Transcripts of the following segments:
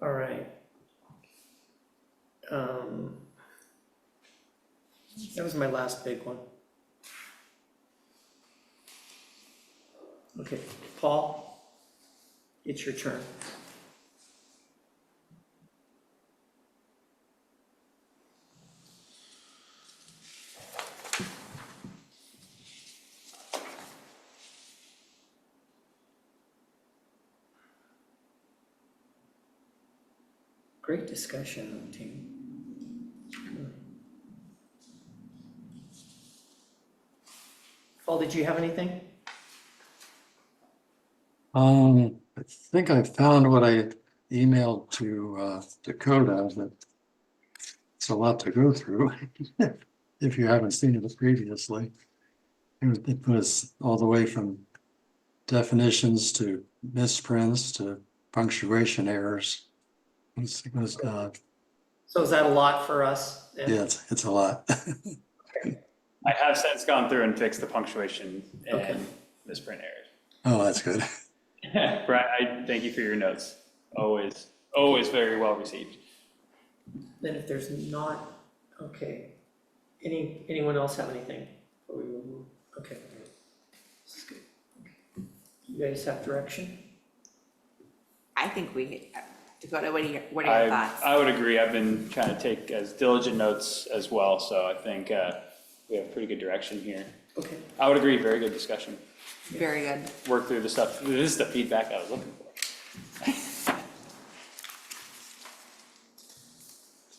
all right. Um. That was my last big one. Okay, Paul, it's your turn. Great discussion, team. Paul, did you have anything? Um, I think I found what I emailed to uh, Dakota, that it's a lot to go through, if you haven't seen it previously. It was- It was all the way from definitions to misprints to punctuation errors. It's- It was, uh, So is that a lot for us? yeah, it's, it's a lot. I have since gone through and fixed the punctuation Okay. and misprint errors. Oh, that's good. Brian, I thank you for your notes. Always, always very well received. Then if there's not, okay. Any, anyone else have anything? before we move? Okay. This is good. You guys have direction? I think we, uh, Dakota, what are your, what are I, your uh, thoughts? I would agree. I've been trying to take as diligent notes as well, so I think uh, we have pretty good direction here. Okay, I would agree, very good discussion. Very good. Work through the stuff. This is the feedback I was looking for.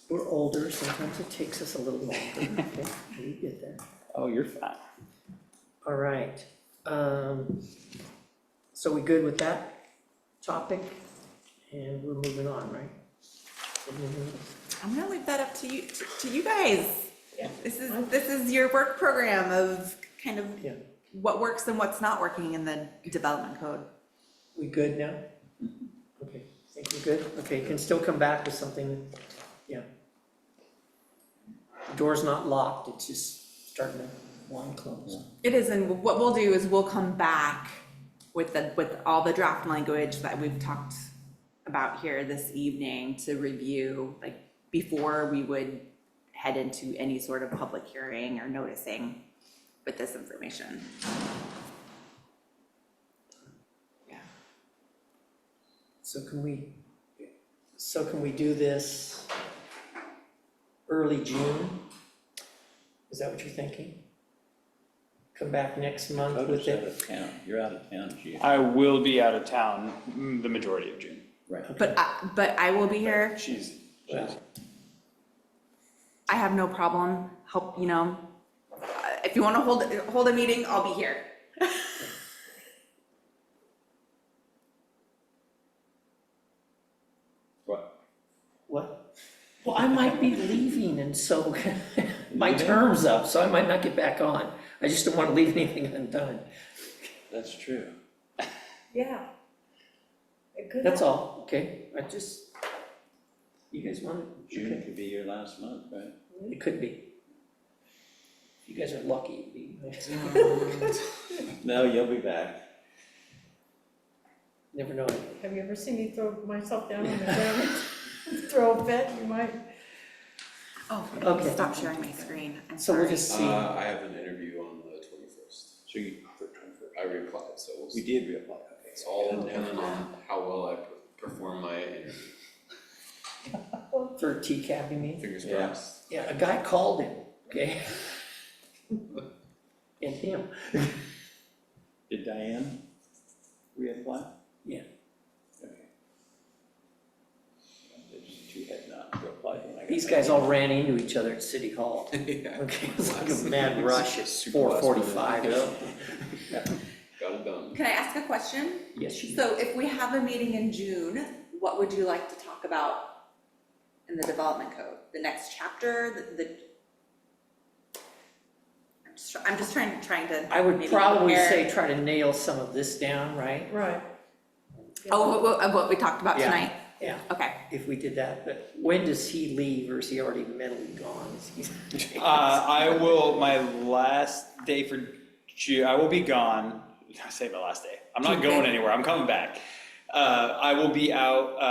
we're older, sometimes it takes us a little longer, okay? We get that. Oh, you're fine. All right, um, so we good with that topic? And we're moving on, right? We're moving on. I'm gonna leave that up to you, to- to you guys. Yeah. This is, this is your work program of kind of Yeah, what works and what's not working in the development code. we good now? Okay, think we're good? Okay, you can still come back with something, yeah. The Door's not locked, it's just starting to wind close. It is, and what we'll do is we'll come back with the, with all the draft language that we've talked about here this evening to review, like, before we would head into any sort of public hearing or noticing with this information. Yeah. So can we, so can we do this early June? Is that what you're thinking? Come back next month with Cody's out it? of town, you're out of town, Jim. I will be out of town mm, the majority of June. Right. But I, but I will be here. She's, Well, I have no problem. Help, you know, uh, if you want to hold, hold a meeting, I'll be here. What? What? Well, I might be leaving and so my Leaving? term's up, so I might not get back on. I just don't want to leave anything undone. That's true. Yeah. That's all, okay? I just, you guys want it? June Okay. could be your last month, right? It could be. If You guys are lucky. it'd be- No, you'll be back. Never know. Have you ever seen me throw myself down on the ground, throw a fit, you might? Oh, Okay. stop sharing my screen. I'm So we'll sorry. just see. Uh, I have an interview on the twenty-first. So you, I replied, so we'll we see. did reapply, okay. It's all dependent on how well I per- perform my interview, for TCAB, you mean? fingers Yeah. crossed. Yeah, a guy called him, okay? And him, did Diane reapply? yeah, There's two had not reapplied when I got these back. guys all ran into each other at City Hall. Yeah. Okay, it's like a mad rush at Super four last minute. forty-five. Got it done. Can I ask a question? Yes, you, So if we have a meeting in June, what would you like to talk about in the development code? The next chapter, the, the? I'm just, try- I'm just trying, trying to. I would maybe probably compare- say try to nail some of this down, right? Right. Oh, what- what, what we talked about Yeah. tonight? Yeah, Okay. if we did that, but when does he leave or is he already mentally gone? Is he- Uh, I will, my last day for June, I will be gone, I say my last day, I'm not going anywhere, I'm coming back. Uh, I will be out, uh,